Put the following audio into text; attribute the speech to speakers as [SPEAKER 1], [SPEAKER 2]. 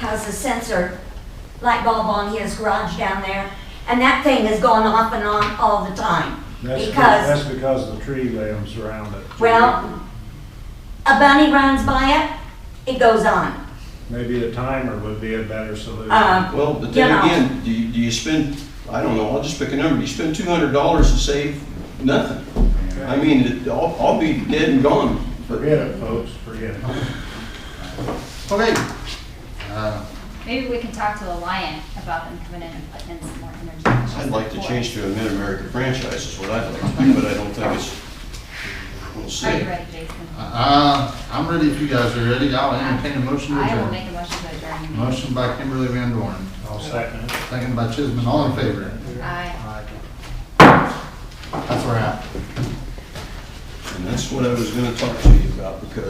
[SPEAKER 1] has a sensor light bulb on his garage down there, and that thing has gone off and on all the time.
[SPEAKER 2] That's, be-
[SPEAKER 1] Because,
[SPEAKER 2] that's because the tree limbs around it.
[SPEAKER 1] well, a bunny runs by it, it goes on.
[SPEAKER 2] Maybe a timer would be a better solution.
[SPEAKER 1] Um,
[SPEAKER 3] Well, but
[SPEAKER 1] You
[SPEAKER 3] then
[SPEAKER 1] know.
[SPEAKER 3] again, do you, do you spend, I don't know, I'll just pick a number, you spend two hundred dollars and save nothing. I mean, it- I'll, I'll be dead and gone. But-
[SPEAKER 2] Forget it, folks, forget it.
[SPEAKER 3] Okay,
[SPEAKER 4] Uh,
[SPEAKER 5] Maybe we can talk to the lion about them coming in and putting in some more energy. efficiency
[SPEAKER 3] I'd like to
[SPEAKER 5] for
[SPEAKER 3] change
[SPEAKER 5] us.
[SPEAKER 3] to a mid-America franchise is what I'd like to do, but I don't think it's, we'll see.
[SPEAKER 5] Are you ready, Jason?
[SPEAKER 4] Uh, I'm ready if you guys are ready. I'll entertain a motion to
[SPEAKER 5] I will make
[SPEAKER 4] adjourn.
[SPEAKER 5] a motion to adjourn.
[SPEAKER 4] Motion by Kimberly Van Dorn,
[SPEAKER 2] I'll second it.
[SPEAKER 4] second by Chisholm, all in favor?
[SPEAKER 5] Aye.
[SPEAKER 4] That's where i at.
[SPEAKER 3] And that's what I was gonna talk to you about because